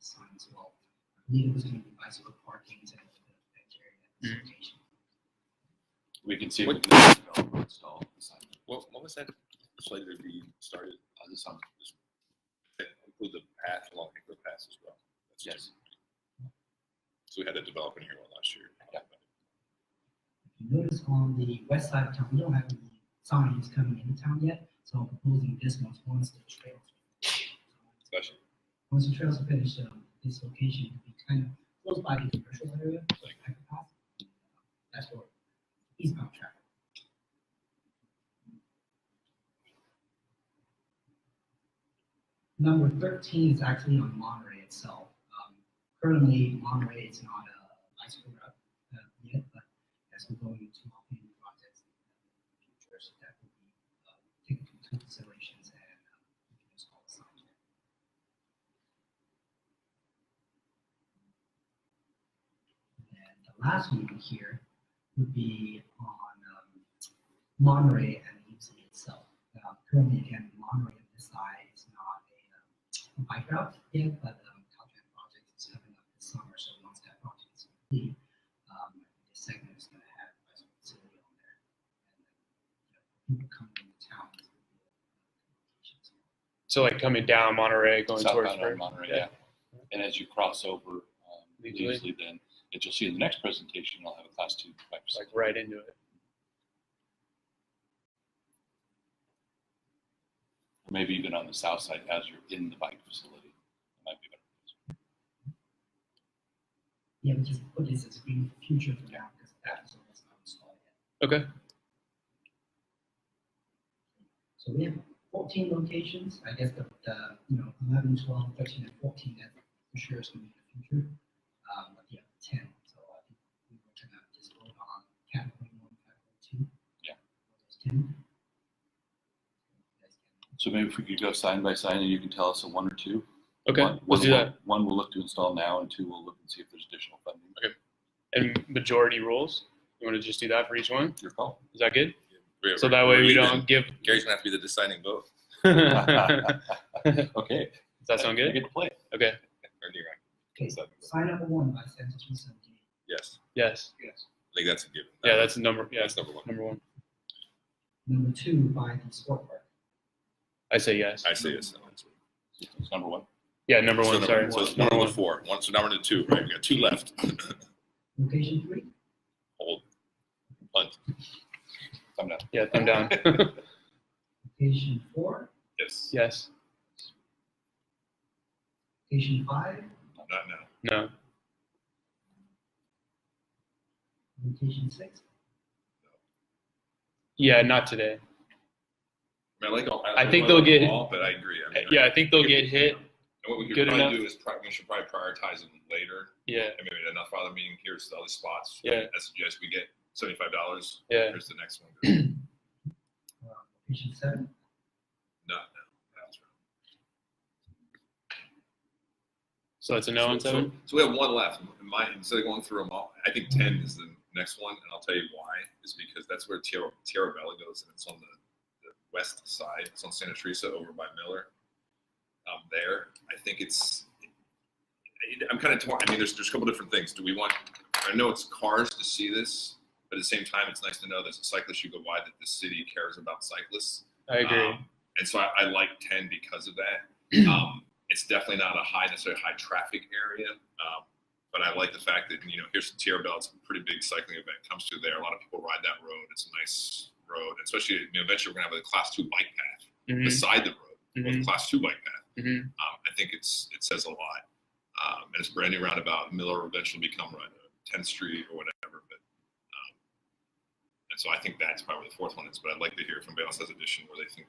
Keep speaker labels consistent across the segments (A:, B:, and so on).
A: signs of all needles and bicycle parkings and the bacteria. location.
B: We can see if we
C: What-
B: can develop or install a sign.
C: What, what was that slated to be started?
B: Uh, this sounds- this-
C: That Include the path along Hickory Pass as well. That's
B: Yes.
C: two. So we had a developer here one last year.
B: Yeah.
A: If you notice on the west side of town, we don't have any signs coming into town yet, so I'm proposing this one once the trails.
C: Especially
A: Once the trails are finished, um, this location will be kind of close by the commercial area, like I could pass. That's for eastbound traffic. Number thirteen is actually on Monterey itself. Um, Currently, Monterey is not a bicycle route uh, yet, but as we're going into multi projects in the future, so that will be uh, taken into considerations and uh, we can just call it something. And the last one here would be on um, Monterey and UC itself. Uh, currently, again, Monterey on this side is not a um, bike route yet, but um, Caltrans project is coming up this summer. So once that project is complete, um, this segment is going to have a bicycle facility on there. And then, you know, people coming into town. is gonna be, uh,
D: So like coming down Monterey, going towards
B: Southbound on
D: Ver-
B: Monterey, yeah. And as you cross over, um,
D: Leisurely.
B: Leisurely, then, that you'll see in the next presentation, I'll have a class two bike
D: like
B: facility.
D: right into it.
B: Maybe even on the south side as you're in the bike facility. It might be better.
A: Yeah, we just put this as green future for now because that is almost not installed yet.
D: Okay.
A: So we have fourteen locations, I guess the, the, you know, 11, 12, 13, and fourteen, that for sure is gonna be in the future. Um, but yeah, ten, so I think we were gonna just go on category one, category two.
B: Yeah.
A: Those ten.
B: So maybe if we could go sign by sign and you can tell us a one or two.
D: Okay.
B: One-
D: Let's do
B: one-
D: that.
B: One we'll look to install now and two we'll look and see if there's additional funding.
D: And majority rules. You want to just do that for each one?
B: Your call.
D: Is that good?
C: We're-
D: So that way
C: we're
D: we
C: even.
D: don't give.
C: Gary's gonna have to be the deciding vote.
D: Does
B: Okay.
D: that sound
B: I
D: good?
B: get to play.
D: Okay.
C: Or do you want-
A: Okay,
C: Seven.
A: sign up one by census three seventy.
C: Yes,
D: Yes.
A: Yes.
C: I think that's a given.
D: Yeah, that's number. Yeah,
C: That's number one.
D: number one.
A: Number two by the sport park.
D: I say yes.
C: I say yes. So
B: It's number one.
D: Yeah, number one.
C: number-
D: sorry.
C: So it's one
D: number
C: of the
D: one.
C: four. One, so now we're into two, right? We got two left.
A: Location three,
C: Hold.
B: Thumb down.
D: Yeah, thumb down.
A: location four,
C: Yes.
D: yes.
A: location five,
C: Not now.
D: No.
A: location six,
D: Yeah, not today.
C: I mean, I like all.
D: I think
C: like
D: they'll get-
C: All, but I agree. I mean, I-
D: Yeah, I think they'll get hit.
C: And what we could
D: Good
C: probably
D: enough.
C: do is pri- we should probably prioritize them later.
D: Yeah.
C: And maybe enough other meeting here is the other spots.
D: Yeah.
C: I suggest we get seventy-five dollars.
D: Yeah.
C: Here's the next one.
A: uh, location seven,
C: No, no. that's right.
D: So that's a no on
C: So-
D: seven.
C: So, so we have one left. In my, instead of going through them all, I think ten is the next one, and I'll tell you why. Is because that's where Tierra, Tierra Bella goes, and it's on the, the west side. It's on Santa Teresa over by Miller. Um, there, I think it's. I- I'm kind of torn. I mean, there's there's a couple different things. Do we want? I know it's cars to see this, but at the same time, it's nice to know there's a cyclist you go by that the city cares about cyclists.
D: I agree.
C: Um, and so I, I like 10 because of that. Um, it's definitely not a high, necessarily high traffic area. Um, but I like the fact that, you know, here's the Tierra Bell. It's a pretty big cycling event. Comes through there. A lot of people ride that road. It's a nice road, especially you know, eventually we're going to have a class two bike path
D: Mhm,
C: beside the road, or
D: mhm,
C: a class two bike path.
D: mhm.
C: Um, I think it's it says a lot. Um, and it's a brand new roundabout. Miller will eventually become right, uh, 10th Street or whatever. But um, and so I think that's probably the fourth one. Is, but I'd like to hear if anybody else has addition where they think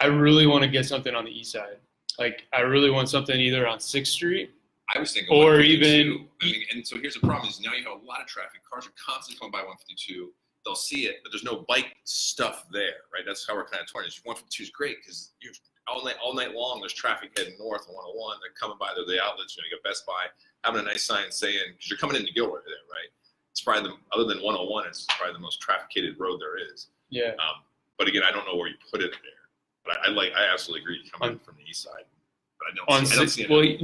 D: I really want to get something on the east side. Like I really want something either on Sixth Street.
C: I was thinking
D: Or
C: 152.
D: even-
C: I mean, and so here's the problem: is now you have a lot of traffic. Cars are constantly coming by 152. They'll see it, but there's no bike stuff there, right? That's how we're kind of torn. Is 152 is great because you're all night, all night long. There's traffic heading north on 101. They're coming by. They're the outlets. You know, you got Best Buy having a nice sign saying because you're coming into Gilroy there, right? It's probably the other than 101, it's probably the most trafficated road there is.
D: Yeah.
C: Um, but again, I don't know where you put it there. But I, I like, I absolutely agree coming
D: On-
C: from the east side. But I don't,
D: On
C: see, I don't
D: Sixth.
C: see it.
D: Well,